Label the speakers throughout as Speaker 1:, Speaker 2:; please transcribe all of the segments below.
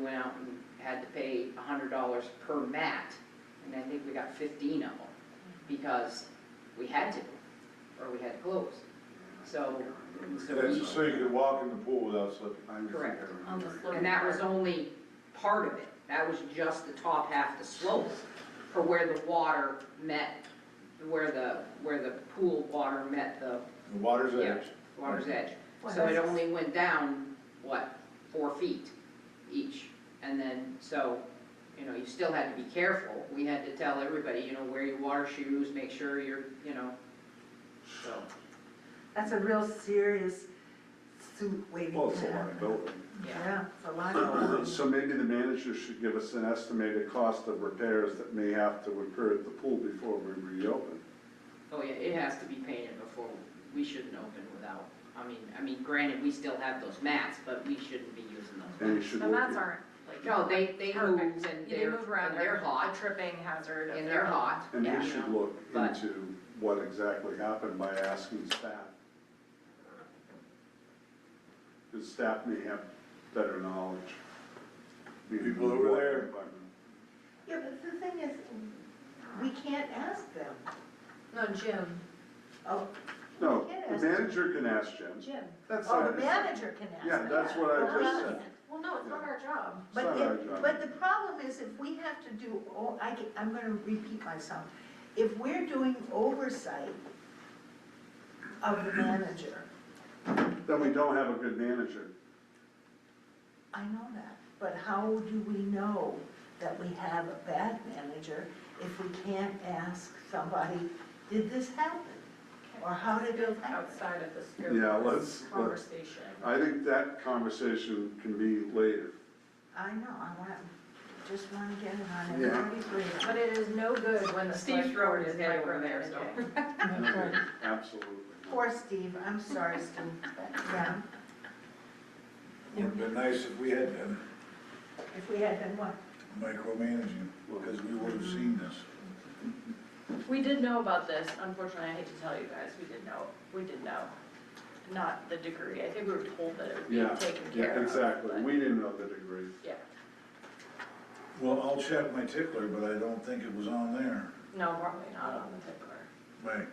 Speaker 1: went out and had to pay a hundred dollars per mat, and I think we got fifteen of them, because we had to, or we had to close. So, so
Speaker 2: That's so
Speaker 1: we,
Speaker 2: you could walk in the pool without slipping.
Speaker 1: Correct.
Speaker 3: On the slope.
Speaker 1: and that was only part of it, that was just the top half of the slope, for where the water met, where the, where the pool water met the
Speaker 2: The water's edge.
Speaker 1: water's edge.
Speaker 3: Well,
Speaker 1: So it
Speaker 3: that's-
Speaker 1: only went down, what, four feet each? And then, so, you know, you still had to be careful. We had to tell everybody, you know, wear your water shoes, make sure you're, you know, so.
Speaker 3: That's a real serious suit waiting
Speaker 4: Well,
Speaker 3: to
Speaker 4: it's a lot of
Speaker 3: happen.
Speaker 4: building.
Speaker 3: Yeah, it's a lot of
Speaker 2: So maybe the manager should give us an estimated cost of repairs that may have to occur at the pool before we reopen.
Speaker 1: Oh, yeah, it has to be painted before, we shouldn't open without, I mean, I mean, granted, we still have those mats, but we shouldn't be using those.
Speaker 2: And you should
Speaker 5: The
Speaker 2: look
Speaker 5: mats
Speaker 2: at-
Speaker 5: aren't like.
Speaker 1: No, they, they
Speaker 5: perfect.
Speaker 1: move and
Speaker 5: They
Speaker 1: they're,
Speaker 5: move around,
Speaker 1: and they're
Speaker 5: A
Speaker 1: hot,
Speaker 5: tripping hazard. if
Speaker 1: and they're hot,
Speaker 2: And
Speaker 1: yeah,
Speaker 2: he
Speaker 1: you
Speaker 2: should
Speaker 1: know.
Speaker 2: look
Speaker 1: but-
Speaker 2: into what exactly happened by asking staff. Because staff may have better knowledge.
Speaker 4: People over there.
Speaker 3: Yeah, but the thing is, we can't ask them.
Speaker 5: No, Jim,
Speaker 3: Oh,
Speaker 2: No,
Speaker 3: We can't
Speaker 2: the
Speaker 3: ask them.
Speaker 2: manager can ask Jim.
Speaker 3: Jim.
Speaker 2: That's
Speaker 3: Oh,
Speaker 2: not,
Speaker 3: the
Speaker 2: it's
Speaker 3: manager can ask
Speaker 2: Yeah,
Speaker 3: them.
Speaker 2: that's what I just
Speaker 3: Well, no,
Speaker 2: said.
Speaker 5: well, no, it's not our job.
Speaker 2: not uh,
Speaker 3: But
Speaker 2: our
Speaker 3: if,
Speaker 2: job.
Speaker 3: but the problem is if we have to do, oh, I, get- I'm gonna repeat myself. If we're doing oversight of the manager,
Speaker 2: Then we don't have a good manager.
Speaker 3: I know that, but how do we know that we have a bad manager if we can't ask somebody, did this happen? Or how did it happen?
Speaker 5: Outside of the scope
Speaker 2: Yeah,
Speaker 5: of
Speaker 2: let's-
Speaker 5: this
Speaker 2: let's-
Speaker 5: conversation.
Speaker 2: I think that conversation can be later.
Speaker 3: I know, I want, just wanna get it on
Speaker 2: Yeah.
Speaker 3: everybody's radar.
Speaker 5: But it is no good when the
Speaker 1: Steve's
Speaker 5: select
Speaker 1: throwing
Speaker 5: board
Speaker 1: his
Speaker 5: is
Speaker 1: head over there, so.
Speaker 5: micromanaging.
Speaker 2: Absolutely.
Speaker 3: Poor Steve, I'm sorry, Steve, yeah,
Speaker 4: Would've been nice if we had been
Speaker 3: if we had been what?
Speaker 4: micromanaging, because we would've seen this.
Speaker 5: We did know about this, unfortunately, I hate to tell you guys, we did know, we did know. Not the degree, I think we were told that it would be
Speaker 2: Yeah,
Speaker 5: taken care
Speaker 2: Yeah,
Speaker 5: of.
Speaker 2: exactly.
Speaker 5: but-
Speaker 2: We didn't know the degree.
Speaker 5: Yeah,
Speaker 4: Well, I'll check my tickler, but I don't think it was on there.
Speaker 5: no, probably not on the tickler.
Speaker 4: Right,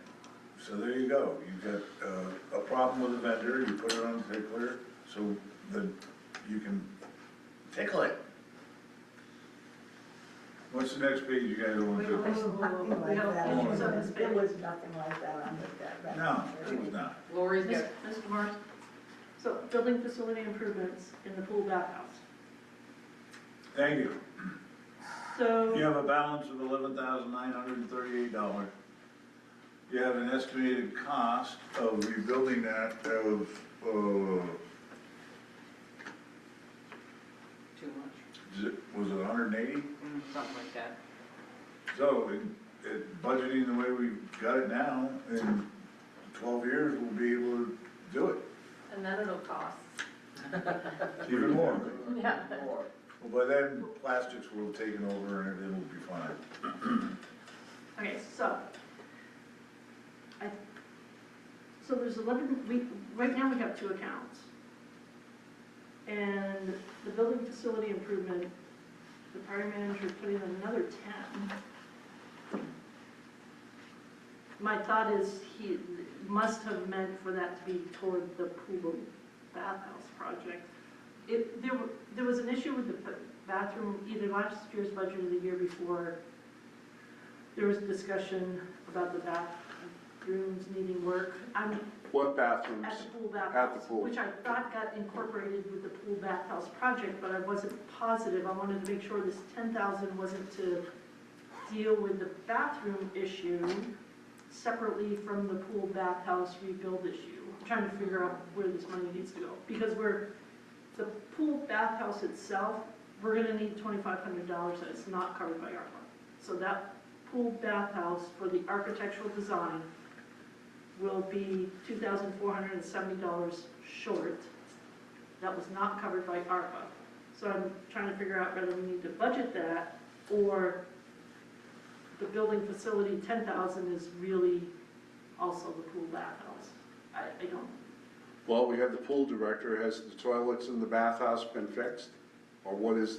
Speaker 4: so there you go. You've got, uh, a problem with the vendor, you put it on the tickler, so that you can tickle it. What's the next page you guys want to
Speaker 3: It
Speaker 4: do?
Speaker 3: was nothing like that,
Speaker 4: No.
Speaker 3: on the- there was nothing like that on the, that record.
Speaker 4: No, it was not.
Speaker 1: Lori's got
Speaker 6: Mr. Mr. Morris, so building facility improvements in the pool bathhouse.
Speaker 4: Thank you. You
Speaker 6: So,
Speaker 4: have a balance of eleven thousand nine hundred and thirty-eight dollars. You have an estimated cost of rebuilding that of, uh,
Speaker 1: too much,
Speaker 4: z- was it hundred and eighty?
Speaker 1: Mm, something like that.
Speaker 4: So, in, in budgeting the way we've got it now, in twelve years, we'll be able to do it,
Speaker 5: And then it'll cost.
Speaker 4: even more.
Speaker 5: Yeah.
Speaker 4: Well, by then, plastics will have taken over and everything will be fine.
Speaker 6: okay, so. I, so there's eleven, we, right now we have two accounts. And the building facility improvement, the prior manager put in another ten. My thought is he must have meant for that to be toward the pool bathhouse project. It, there, were- there was an issue with the ba- bathroom, either last year's budget or the year before. There was discussion about the bathrooms needing work. I'm,
Speaker 2: What bathrooms?
Speaker 6: at the pool
Speaker 2: At the
Speaker 6: bathhouse,
Speaker 2: pool.
Speaker 6: which I thought got incorporated with the pool bathhouse project, but I wasn't positive. I wanted to make sure this ten thousand wasn't to deal with the bathroom issue separately from the pool bathhouse rebuild issue. I'm trying to figure out where this money needs to go, because we're, the pool bathhouse itself, we're gonna need twenty-five hundred dollars that's not covered by ARPA. So that pool bathhouse for the architectural design will be two thousand four hundred and seventy dollars short. That was not covered by ARPA. So I'm trying to figure out whether we need to budget that or the building facility, ten thousand is really also the pool bathhouse. I, I don't,
Speaker 2: Well, we have the pool director. Has the toilets in the bathhouse been fixed? Or what is